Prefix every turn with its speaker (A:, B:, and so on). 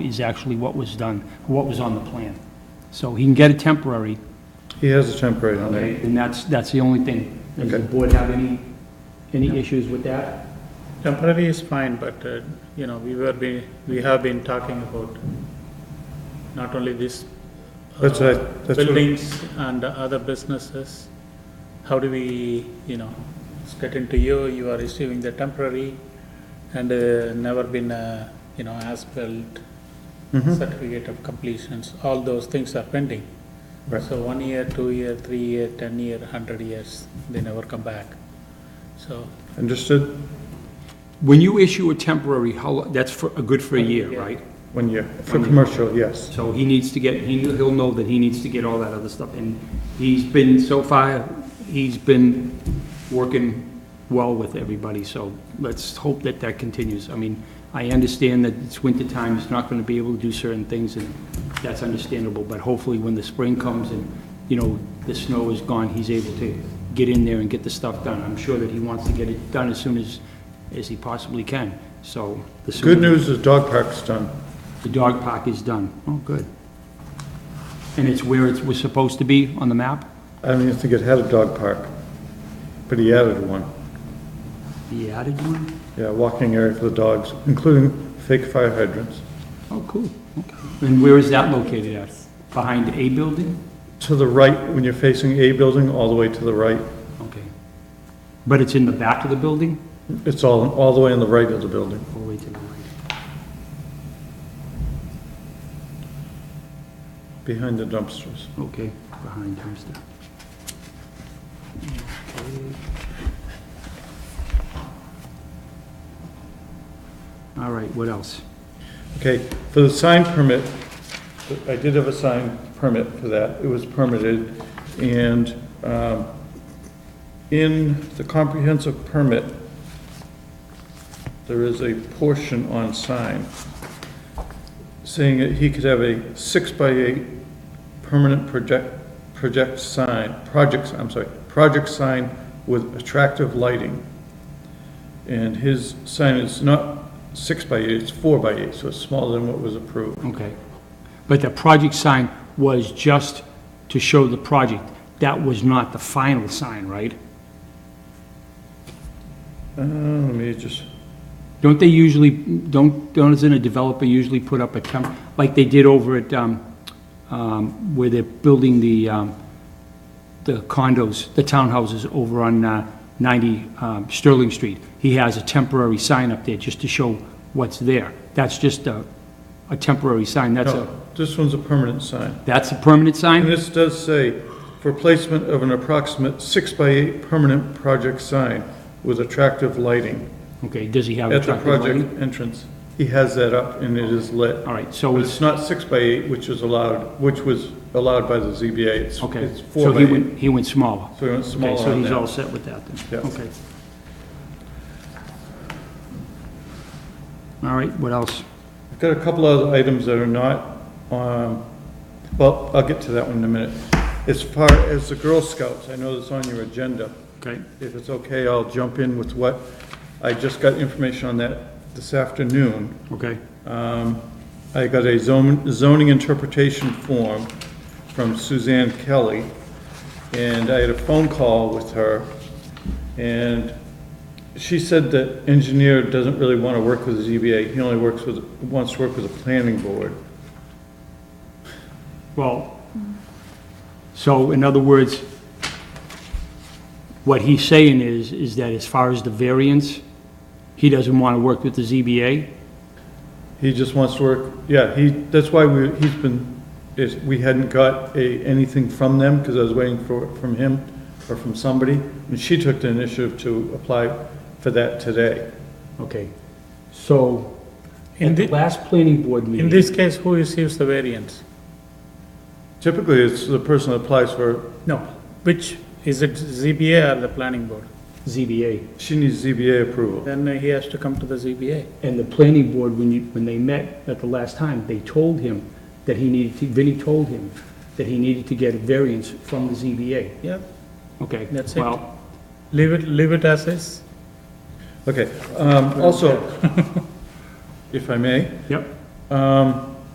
A: is actually what was done, what was on the plan. So he can get a temporary,
B: He has a temporary on there.
A: and that's, that's the only thing. Does the
B: Okay.
A: board have any, any issues with that?
C: Temporary is fine, but, uh, you know, we were, be- we have been talking about not only this. uh,
B: That's right, that's what-
C: Buildings and other businesses. How do we, you know, it's getting to you, you are receiving the temporary and uh, never been, uh, you know, as-built
B: Mm-hmm.
C: certificate of completions, all those things are pending.
B: Right.
C: So one year, two year, three year, ten year, hundred years, they never come back. So
B: Understood?
A: When you issue a temporary, how, lo- that's for, good for a year,
C: Yeah.
A: right?
B: One year. For commercial, yes.
A: So he needs to get, he, he'll know that he needs to get all that other stuff, and he's been, so far, he's been working well with everybody, so let's hope that that continues. I mean, I understand that it's winter time, he's not gonna be able to do certain things, and that's understandable, but hopefully when the spring comes and, you know, the snow is gone, he's able to get in there and get the stuff done. I'm sure that he wants to get it done as soon as, as he possibly can, so. the sooner-
B: Good news is dog park's done.
A: the dog park is done. Oh, good. And it's where it was supposed to be on the map?
B: I don't even think it had a dog park, but he added one.
A: The added one?
B: Yeah, walking area for the dogs, including fake fire hydrants.
A: Oh, cool. Okay. And where is that located at? Behind a building?
B: To the right, when you're facing A building, all the way to the right.
A: Okay. But it's in the back of the building?
B: It's all, all the way on the right of the building.
A: All the way to the right.
B: Behind the dumpsters.
A: Okay, behind dumpster. Okay. All right, what else?
B: Okay, for the sign permit, I did have a sign permit for that. It was permitted, and um, in the comprehensive permit, there is a portion on sign saying that he could have a six-by-eight permanent project, project sign, projects, I'm sorry, project sign with attractive lighting. And his sign is not six by eight, it's four by eight, so it's smaller than what was approved.
A: Okay. But the project sign was just to show the project. That was not the final sign, right?
B: Uh, let me just,
A: Don't they usually, don't, don't, isn't a developer usually put up a temp, like they did over at, um, um, where they're building the, um, the condos, the townhouses over on, uh, ninety, um, Sterling Street. He has a temporary sign up there just to show what's there. That's just a, a temporary sign. That's a,
B: no, this one's a permanent sign.
A: that's a permanent
B: And
A: sign?
B: this does say, for placement of an approximate six by eight permanent project sign with attractive lighting
A: Okay, does he have
B: at the
A: attractive lighting?
B: project entrance. He has that up and it is lit.
A: All right, so
B: But
A: it's,
B: it's not six by eight, which is allowed, which was allowed by the ZBA. It's,
A: Okay,
B: it's four
A: so
B: by
A: he
B: eight.
A: went, he went smaller.
B: So he went smaller
A: Okay, so
B: on
A: he's
B: that.
A: all set with that
B: Yeah.
A: then? Okay. All right, what else?
B: I've got a couple other items that are not, um, well, I'll get to that one in a minute. As far as the Girl Scouts, I know that's on your agenda.
A: Okay,
B: If it's okay, I'll jump in with what, I just got information on that this afternoon.
A: okay,
B: Um, I got a zon- zoning interpretation form from Suzanne Kelly, and I had a phone call with her, and she said that engineer doesn't really want to work with the ZBA, he only works with, wants to work with the planning board.
A: well, so in other words, what he's saying is, is that as far as the variance, he doesn't want to work with the ZBA?
B: He just wants to work, yeah, he, that's why we, he's been, is, we hadn't got a, anything from them, because I was waiting for, from him or from somebody, and she took the initiative to apply for that today.
A: Okay, so,
C: In
A: at the
C: thi-
A: last planning board
C: In
A: meeting,
C: this case, who receives the variance?
B: Typically, it's the person that applies for,
C: No. Which, is it ZBA or the planning board?
A: ZBA,
B: she needs ZBA approval.
C: Then he has to come to the ZBA.
A: And the planning board, when you, when they met at the last time, they told him that he needed to, Vinnie told him that he needed to get a variance from the ZBA.
C: Yeah,
A: Okay.
C: That's it.
A: Well,
C: leave it, leave it as is.
B: Okay, um, also, if I may,
A: yep,
B: um,